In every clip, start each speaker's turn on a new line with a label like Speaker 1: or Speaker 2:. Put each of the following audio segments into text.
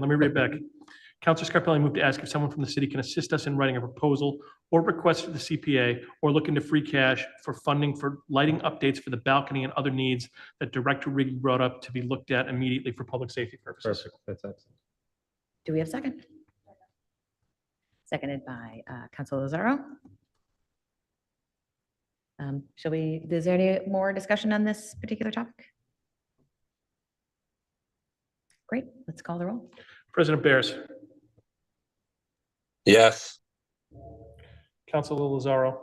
Speaker 1: Let me read it back. Counselor Scarpelli moved to ask if someone from the city can assist us in writing a proposal or request to the CPA or look into free cash for funding for lighting updates for the balcony and other needs that Director Riggi brought up to be looked at immediately for public safety purposes.
Speaker 2: Perfect, that's excellent.
Speaker 3: Do we have a second? Seconded by uh, Council Lozaro. Um, Shall we, is there any more discussion on this particular topic? Great, let's call the roll.
Speaker 1: President Bears,
Speaker 4: yes,
Speaker 1: Counselor Lozaro.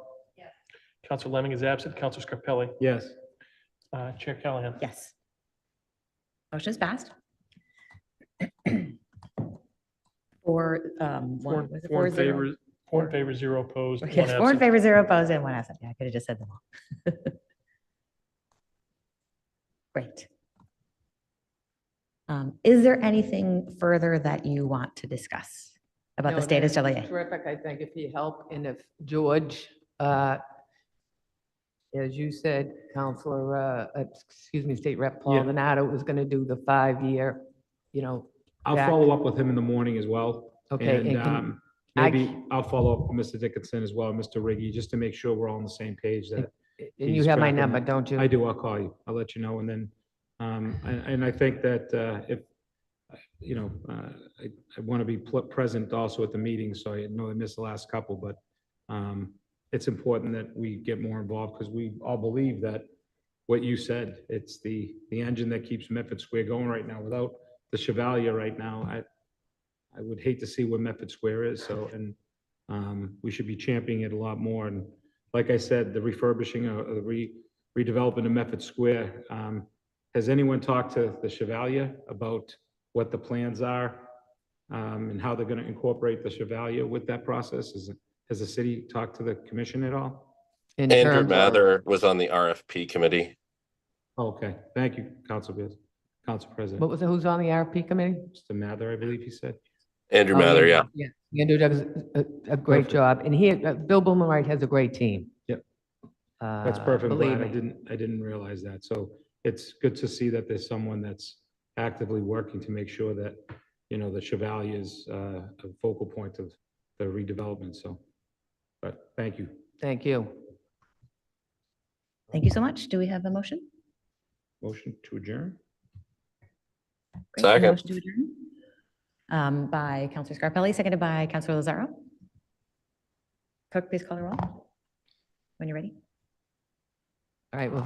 Speaker 1: Counselor Lemming is absent. Counselor Scarpelli,
Speaker 2: Yes,
Speaker 1: uh, Chair Callahan.
Speaker 3: Yes. Motion is passed. Four, um,
Speaker 1: Four
Speaker 3: one, was
Speaker 1: four
Speaker 3: it four
Speaker 1: in
Speaker 3: zero?
Speaker 1: favor, four in favor, zero opposed. one
Speaker 3: Yes, four in
Speaker 1: absent.
Speaker 3: favor, zero opposed, and one absent. Yeah, I could have just said them all. Great. Um, Is there anything further that you want to discuss about the
Speaker 5: No,
Speaker 3: status
Speaker 5: that's
Speaker 3: WA?
Speaker 5: Terrific, I think, if you help, and if George, uh, as you said, Counselor, uh, uh, excuse me, State Rep Paul
Speaker 2: Yeah.
Speaker 5: Venato was going to do the five-year, you know,
Speaker 2: I'll
Speaker 5: Jack.
Speaker 2: follow up with him in the morning as well.
Speaker 5: okay.
Speaker 2: And
Speaker 5: and can-
Speaker 2: um,
Speaker 5: I-
Speaker 2: maybe I'll follow up with Mr. Dickinson as well, Mr. Riggi, just to make sure we're all on the same page that
Speaker 5: And you
Speaker 2: he's
Speaker 5: have my
Speaker 2: tracking
Speaker 5: number,
Speaker 2: that.
Speaker 5: don't you?
Speaker 2: I do, I'll call you. I'll let you know. And then, um, and, and I think that, uh, if, you know, uh, I, I want to be pl- present also at the meeting, so I know I missed the last couple, but, um, it's important that we get more involved because we all believe that what you said, it's the, the engine that keeps Medford Square going right now. Without the Chevalier right now, I, I would hate to see where Medford Square is, so, and, um, we should be championing it a lot more. And like I said, the refurbishing, uh, the re, redevelopment of Medford Square. Um, Has anyone talked to the Chevalier about what the plans are um, and how they're going to incorporate the Chevalier with that process? Is, it- has the city talked to the commission at all?
Speaker 5: In
Speaker 4: Andrew
Speaker 5: terms of-
Speaker 4: Mather was on the RFP committee.
Speaker 2: Oh, Okay, thank you, Council Biz, Council President.
Speaker 5: What was, it? who's on the RP committee?
Speaker 2: Mr. Mather, I believe he said.
Speaker 4: Andrew
Speaker 5: Oh,
Speaker 4: Mather, yeah.
Speaker 5: Yeah, Andrew does a, a great
Speaker 2: Perfect.
Speaker 5: job, and he, uh, Bill Boomerang has a great team.
Speaker 2: Yep.
Speaker 5: Uh,
Speaker 2: That's perfect. I'm
Speaker 5: Believe
Speaker 2: glad I
Speaker 5: me.
Speaker 2: didn't, I didn't realize that. So it's good to see that there's someone that's actively working to make sure that, you know, the Chevalier is uh, a focal point of the redevelopment, so. But thank you.
Speaker 5: Thank you.
Speaker 3: Thank you so much. Do we have a motion?
Speaker 2: Motion to adjourn?
Speaker 3: Great, a
Speaker 4: Second.
Speaker 3: motion to adjourn. Um, By Counselor Scarpelli, seconded by Counselor Lozaro. Clerk, please call the roll when you're ready.
Speaker 5: All right, well,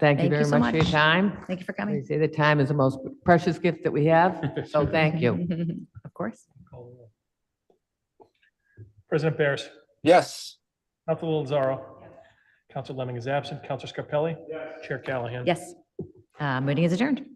Speaker 5: thank
Speaker 3: Thank
Speaker 5: you
Speaker 3: you
Speaker 5: very
Speaker 3: so
Speaker 5: much for your
Speaker 3: much.
Speaker 5: time.
Speaker 3: Thank you for
Speaker 5: They
Speaker 3: coming.
Speaker 5: say that time is the most precious gift that we have, so thank you.
Speaker 3: Of course.
Speaker 1: President Bears.
Speaker 4: Yes.
Speaker 1: Counselor Lozaro. Counselor Lemming is absent. Counselor Scarpelli. Chair Callahan.
Speaker 3: Yes. Uh, Meeting is adjourned.